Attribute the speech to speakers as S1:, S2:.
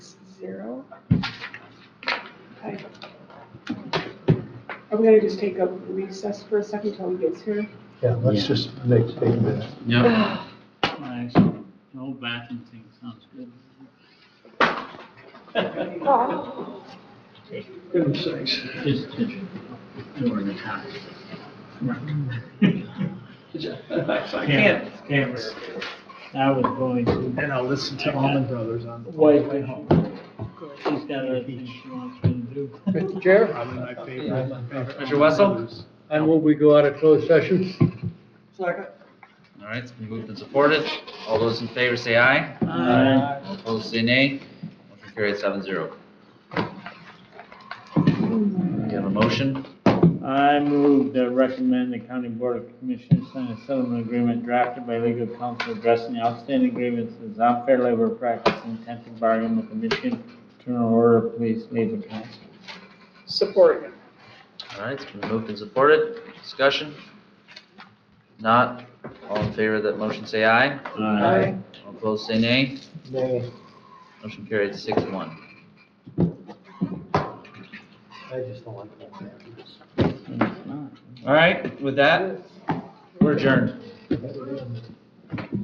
S1: zero. Okay. Are we gonna just take a recess for a second till he gets here?
S2: Yeah, let's
S3: Yeah.
S2: just make, take a minute.
S4: Yep. Nice. The whole bathroom thing sounds good.
S2: Goodness sakes.
S4: Just, just doing the time.
S5: I
S4: Cameras, cameras. I was going to,
S5: And I'll listen to Almond Brothers on the
S4: Wait.
S5: way home.
S4: she's got other things she wants me to do.
S2: Mr. Chair,
S5: Probably my favorite.
S6: Mr. Wessel?
S2: I move we go out of closed session.
S6: All right, it's been moved and supported. All those in favor say aye.
S4: Aye.
S6: All opposed say nay. Motion carried seven zero. You have a motion?
S4: I move to recommend the county board of commissioners sign a settlement agreement drafted by legal counsel addressing the outstanding grievances, unfair labor practice, and intent to bargain with the Michigan General Order of Police Labor Council.
S1: Support.
S6: All right, it's been moved and supported. Discussion? Not. All in favor of that motion say aye.
S4: Aye.
S6: All opposed say nay.
S2: Nay,
S6: Motion carried six one.
S2: I just don't like that.
S6: All right, with that, we're adjourned.